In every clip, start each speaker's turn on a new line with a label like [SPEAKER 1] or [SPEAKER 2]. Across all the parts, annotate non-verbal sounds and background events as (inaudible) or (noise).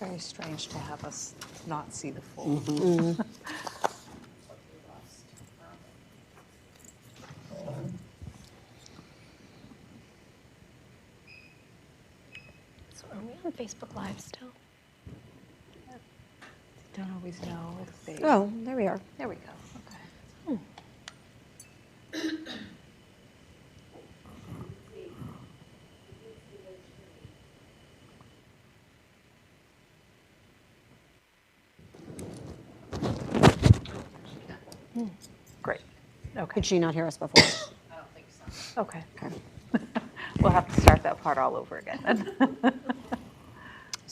[SPEAKER 1] Very strange to have us not see the full.
[SPEAKER 2] So are we on Facebook Live still?
[SPEAKER 1] Don't always know if they.
[SPEAKER 3] Oh, there we are.
[SPEAKER 1] There we go, okay. Hmm. Great, okay,
[SPEAKER 3] Could she not hear us before? (coughs)
[SPEAKER 1] okay. (laughs)
[SPEAKER 3] Okay.
[SPEAKER 1] We'll have to start that part all over again then. (laughs)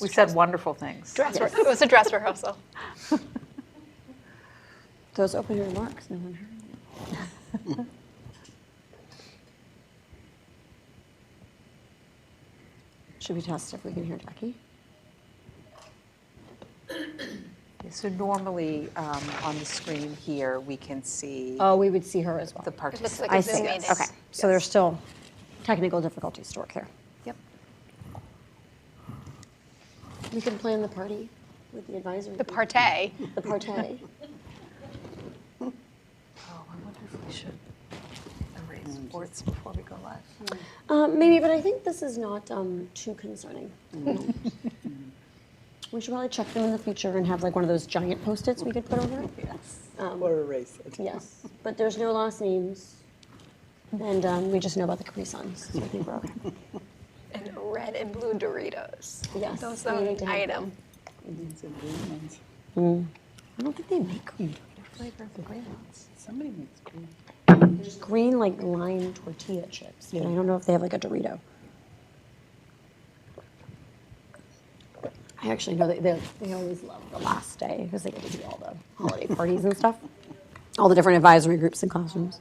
[SPEAKER 1] We said wonderful things.
[SPEAKER 2] Dress re- it was a dress rehearsal.
[SPEAKER 3] Those opening remarks, no one heard. (laughs) Should we test if we can hear Jackie?
[SPEAKER 1] So normally, um, on the screen here, we can see
[SPEAKER 3] Oh, we would see her as well.
[SPEAKER 1] the participants.
[SPEAKER 2] like a
[SPEAKER 3] I
[SPEAKER 2] Zoom
[SPEAKER 3] see.
[SPEAKER 2] meeting.
[SPEAKER 3] Okay. So there's still technical difficulties to work through.
[SPEAKER 1] Yep.
[SPEAKER 4] We can plan the party with the advisory.
[SPEAKER 2] The
[SPEAKER 4] group.
[SPEAKER 2] partay.
[SPEAKER 4] The
[SPEAKER 3] (laughs)
[SPEAKER 4] partay.
[SPEAKER 1] Oh, I wonder if we should erase
[SPEAKER 3] Mm.
[SPEAKER 1] sports before we go live.
[SPEAKER 3] Uh,
[SPEAKER 4] Um, maybe, but I think this is not um, too concerning. Mm-hmm.
[SPEAKER 3] (laughs)
[SPEAKER 4] We should probably check them in the future and have like one of those giant post-its we could put over it.
[SPEAKER 1] Yes.
[SPEAKER 4] Um,
[SPEAKER 5] Or erase it.
[SPEAKER 4] yes, but there's no last names, and um, we just know about the Capri Suns. So I think we're okay.
[SPEAKER 2] And red and blue Doritos.
[SPEAKER 4] Yes,
[SPEAKER 2] Those
[SPEAKER 4] we
[SPEAKER 2] are
[SPEAKER 4] need to
[SPEAKER 2] an
[SPEAKER 4] have
[SPEAKER 2] item.
[SPEAKER 5] It's a green ones.
[SPEAKER 3] I don't think they make
[SPEAKER 1] Flavor of the green ones.
[SPEAKER 5] Somebody makes green.
[SPEAKER 4] There's green like lime tortilla chips, but I don't know if they have like a Dorito.
[SPEAKER 3] I actually know that they, they always love the last day because they get to do all the (laughs) holiday parties and stuff, all the different advisory groups and classrooms.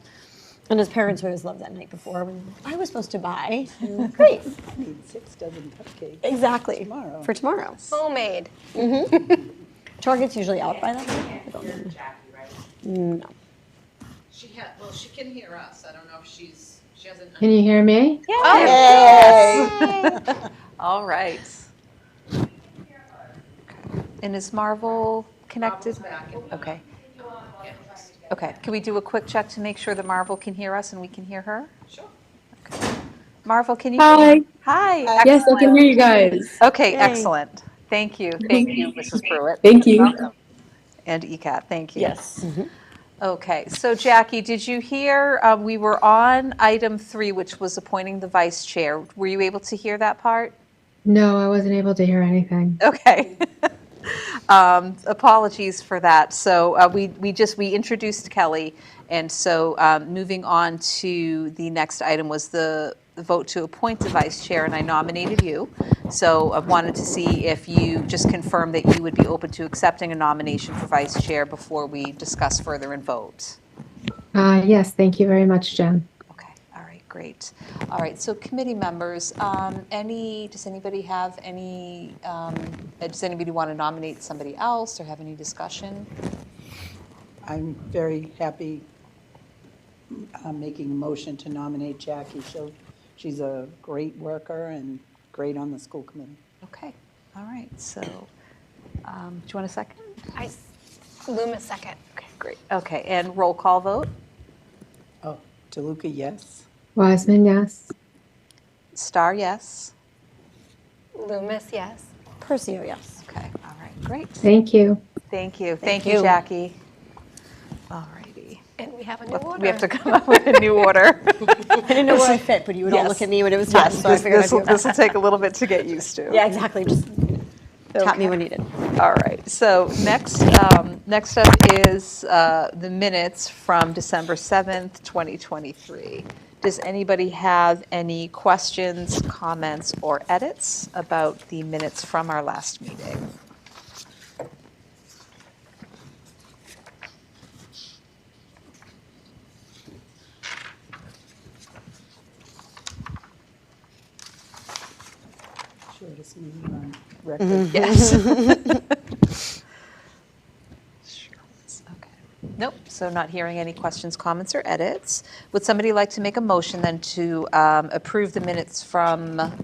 [SPEAKER 3] And as parents, we always love that night before when they're like, I was supposed to (laughs) buy. And we're like, Great,
[SPEAKER 5] I need six dozen cupcakes.
[SPEAKER 3] exactly.
[SPEAKER 5] Tomorrow.
[SPEAKER 3] For tomorrow.
[SPEAKER 2] Homemade.
[SPEAKER 3] Target's usually out by that point. I
[SPEAKER 6] Can't
[SPEAKER 3] don't
[SPEAKER 6] hear
[SPEAKER 3] know.
[SPEAKER 6] Jackie, right?
[SPEAKER 3] No.
[SPEAKER 6] She had, well, she can hear us. I don't know if she's, she hasn't.
[SPEAKER 7] Can you hear me?
[SPEAKER 1] All right. And is Marvel connected? Okay. Okay, can we do a quick check to make sure that Marvel can hear us and we can hear her?
[SPEAKER 6] Sure.
[SPEAKER 1] Marvel, can you?
[SPEAKER 7] Hi.
[SPEAKER 1] Hi.
[SPEAKER 7] Yes, I can
[SPEAKER 1] excellent.
[SPEAKER 7] hear you guys.
[SPEAKER 1] Okay, excellent. Thank you. Thank you, Mrs. Pruitt.
[SPEAKER 7] Thank you.
[SPEAKER 1] And ECAT, thank you. Mm-hmm.
[SPEAKER 5] Yes.
[SPEAKER 1] Okay, so Jackie, did you hear, um, we were on item three, which was appointing the vice chair. Were you able to hear that part?
[SPEAKER 7] No, I wasn't able to hear anything.
[SPEAKER 1] (laughs) Okay. Um, Apologies for that. So uh, we we just, we introduced Kelly, and so um, moving on to the next item was the the vote to appoint the vice chair, and I nominated you. So I wanted to see if you just confirm that you would be open to accepting a nomination for vice chair before we discuss further and vote.
[SPEAKER 7] Uh, yes, thank you very much, Jen.
[SPEAKER 1] Okay, all right, great. All right, so committee members, um, any, does anybody have any, um, uh, does anybody want to nominate somebody else or have any discussion?
[SPEAKER 5] I'm very happy uh, making a motion to nominate Jackie. She'll, she's a great worker and great on the school committee.
[SPEAKER 1] Okay, all right, so, um, do you want a second?
[SPEAKER 2] I Luma second.
[SPEAKER 1] Okay, great. Okay, and roll call vote?
[SPEAKER 5] Oh, DeLuca, yes.
[SPEAKER 7] Wiseman, yes.
[SPEAKER 1] Star, yes?
[SPEAKER 2] Loomis, yes.
[SPEAKER 3] Percio, oh, yes.
[SPEAKER 1] Okay, all right, great.
[SPEAKER 7] Thank you.
[SPEAKER 1] Thank you, thank you, Jackie. All righty.
[SPEAKER 2] And we have a new order.
[SPEAKER 1] We have to come up with a new (laughs) order.
[SPEAKER 3] I didn't know where I fit, but you would all look
[SPEAKER 1] Yes.
[SPEAKER 3] at me when it was time, so I figured I'd
[SPEAKER 1] This
[SPEAKER 3] do it.
[SPEAKER 1] will take a little bit to get used (laughs) to.
[SPEAKER 3] Yeah, exactly. Just tap me when needed.
[SPEAKER 1] All right, so next, um, next up is uh, the minutes from December 7th, 2023. Does anybody have any questions, comments, or edits about the minutes from our last meeting?
[SPEAKER 5] Shortest meeting on record.
[SPEAKER 1] Yes. Sure is, okay. Nope, so not hearing any questions, comments, or edits. Would somebody like to make a motion then to um, approve the minutes from